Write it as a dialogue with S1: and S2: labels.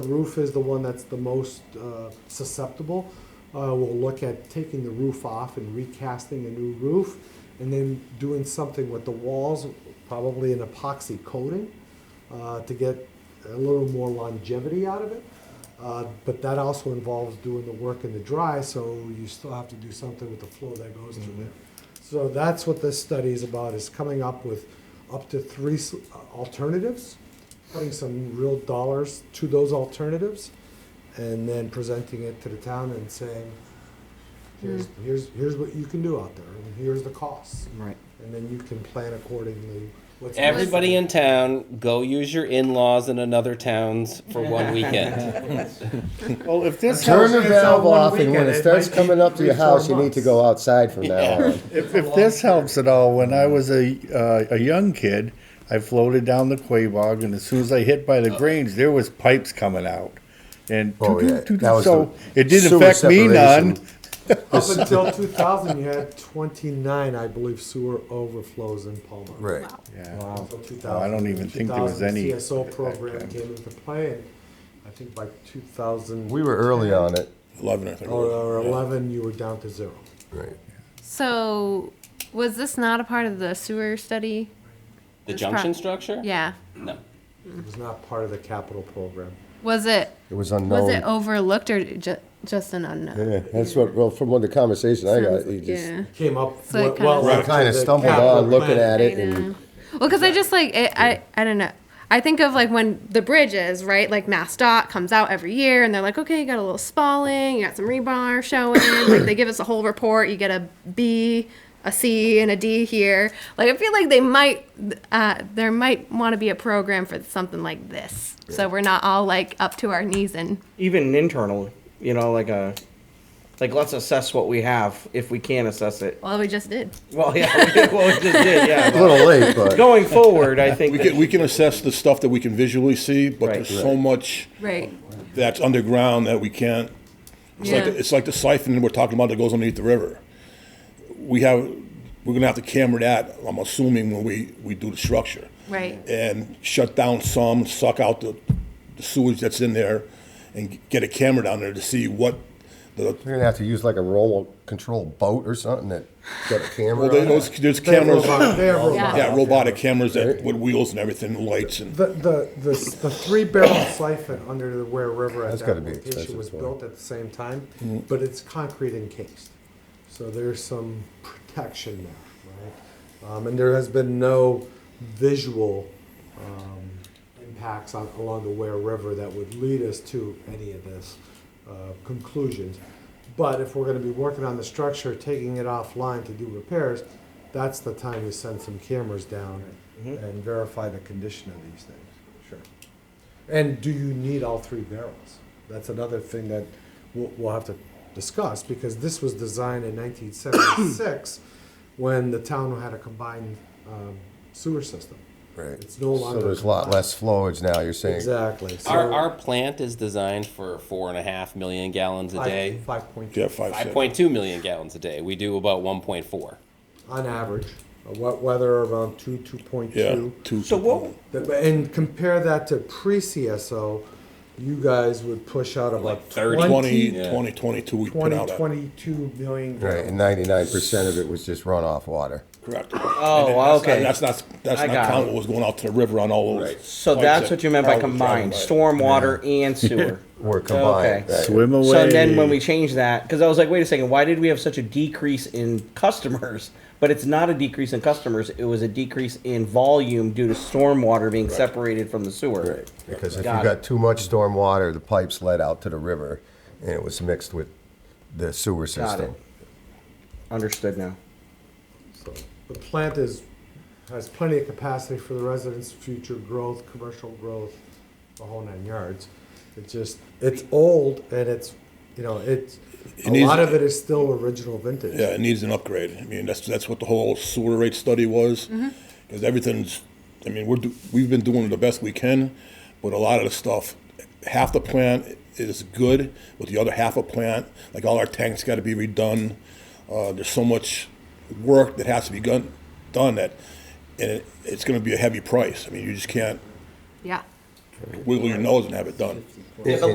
S1: The roof is the one that's the most uh, susceptible. Uh, We'll look at taking the roof off and recasting a new roof, and then doing something with the walls, probably an epoxy coating, uh, to get a little more longevity out of it. Uh, But that also involves doing the work in the dry, so you still have to do something with the flow that goes through there. So that's what this study is about, is coming up with up to three s- alternatives, putting some real dollars to those alternatives, and then presenting it to the town and saying, here's, here's, here's what you can do out there, and here's the costs.
S2: Right.
S1: And then you can plan accordingly. What's the-
S3: Everybody in town, go use your in-laws in another towns for one weekend.
S4: Well, if this house
S5: Turn the
S4: gets on
S5: valve
S4: one
S5: off, and when
S4: weekend,
S5: it starts
S4: might
S5: coming
S4: be
S5: up to your
S4: three, four
S5: house, you need to
S4: months.
S5: go outside from now on.
S4: If, if this helps at all, when I was a, uh, a young kid, I floated down the Quabog, and as soon as I hit by the Grange, there was pipes coming out. And
S5: Oh, yeah.
S4: toot, toot,
S5: That
S4: toot,
S5: was
S4: so
S5: the
S4: it didn't
S5: sewer
S4: affect me none.
S5: separation.
S1: Up until 2000, you had 29, I believe, sewer overflows in Palmer.
S5: Right.
S4: Yeah.
S1: Until 2000.
S4: I don't even think there was
S1: 2000,
S4: any
S1: The CSO
S4: back
S1: program
S4: then.
S1: came into play, and I think by 2000.
S5: We were early on it.
S4: Eleven, I think.
S1: Or or 11, you were down to zero.
S5: Right.
S6: So, was this not a part of the sewer study?
S3: The
S6: It's
S3: junction
S6: prob-
S3: structure?
S6: Yeah.
S3: No.
S1: It was not part of the capital program.
S6: Was it
S5: It was
S6: was it
S5: unknown.
S6: overlooked or ju- just an unknown?
S5: Yeah, that's what, well, from what the conversation I got, you just,
S6: yeah.
S1: Came up
S6: So it
S1: well
S6: kinda-
S1: well
S6: We
S1: after
S5: kind of
S1: the
S5: stumbled
S1: capital
S5: on looking
S1: plan.
S5: at it
S6: I
S5: and
S6: know. Well, because I just like it, I I don't know. I think of like when the bridges, right? Like MassDOT comes out every year, and they're like, okay, you got a little spalling, you got some rebar showing. like they give us a whole report. You get a B, a C, and a D here. Like I feel like they might, uh, there might want to be a program for something like this, so we're not all like up to our knees in.
S7: even internal, you know, like a, like let's assess what we have if we can assess it.
S6: Well, we just did.
S7: Well, yeah, we did, well, we just did, yeah.
S5: a
S7: but
S5: little late, but
S7: Going forward, I think
S8: We
S7: that-
S8: can, we can assess the stuff that we can visually see, but
S7: Right.
S8: there's so much
S6: Right.
S8: that's underground that we can't. It's like,
S6: Yeah.
S8: it's like the siphon we're talking about that goes underneath the river. We have, we're gonna have to camera that, I'm assuming, when we, we do the structure.
S6: Right.
S8: And shut down some, suck out the the sewage that's in there and get a camera down there to see what the,
S5: you're gonna have to use like a roll control boat or something that got a camera
S8: well,
S5: on it.
S8: those, there's
S1: They have
S8: cameras,
S1: robot- they have robot-
S8: yeah, robotic cameras that, with wheels and everything, lights and.
S1: The, the, the, s- the three barrel siphon under the Ware River at
S5: That's
S1: that
S5: gotta be
S1: location
S5: expensive Mm-hmm.
S1: was
S5: for
S1: built at the same time, but it's concrete encased. So there's some protection there, right? Um, and there has been no visual, um, impacts on, along the Ware River that would lead us to any of this, uh, conclusions. But if we're gonna be working on the structure, taking it offline to do repairs, that's the time you send some cameras down
S5: Mm-hmm.
S1: and verify the condition of these things. Sure. And do you need all three barrels? That's another thing that we'll, we'll have to discuss because this was designed in 1976 when the town had a combined um, sewer system.
S5: Right.
S1: It's no
S5: So
S1: longer.
S5: there's a lot less flowage now, you're saying.
S1: Exactly. So
S3: Our, our plant is designed for four and a half million gallons a
S1: five-
S3: day.
S1: 5.2
S8: Yeah, five,
S3: Five
S8: six.
S3: point two million gallons a day. We do about one point four.
S1: on average. Uh, wet weather around 2, 2.2.
S8: Yeah, two.
S7: So what,
S1: The- And compare that to pre-CSO, you guys would push out about
S3: Like 30.
S8: 20,
S1: 20,
S8: 20, 22, we put
S1: 20,
S8: out. a-
S1: 22 million
S5: Right, and
S1: gallons.
S5: ninety-nine percent of it was just runoff water.
S8: Correct.
S7: Oh,
S8: And that's-
S7: okay.
S8: and That's not, that's
S7: I
S8: not
S7: got
S8: counting
S7: it.
S8: what was going out to the river on all those.
S7: so
S8: pipes
S7: that's
S8: that
S7: what you meant by
S8: Carl was talking
S7: combined,
S8: about.
S7: stormwater and sewer.
S5: Were combined.
S7: Okay.
S5: right.
S4: Swim away.
S7: So then when we changed that, because I was like, wait a second, why did we have such a decrease in customers? But it's not a decrease in customers, it was a decrease in volume due to stormwater being separated from the sewer.
S5: Right, because if you
S7: Got
S5: got too much storm water, the pipes led out to the river and it was mixed with the sewer system.
S7: Understood now.
S1: So The plant is, has plenty of capacity for the residents' future growth, commercial growth, the whole nine yards. It's just, it's old and it's, you know, it's, a
S8: needs-
S1: lot of it is still original vintage.
S8: Yeah, it needs an upgrade. I mean, that's, that's what the whole sewer rate study was. Because everything's, I mean, we're, do- we've been doing the best we can, but a lot of the stuff, half the plant is good, but the other half of plant, like all our tanks got to be redone. Uh, there's so much work that has to be gun- done that, and it, it's going to be a heavy price. I mean, you just can't
S6: Yeah.
S8: wiggle your nose and have it done.
S5: It-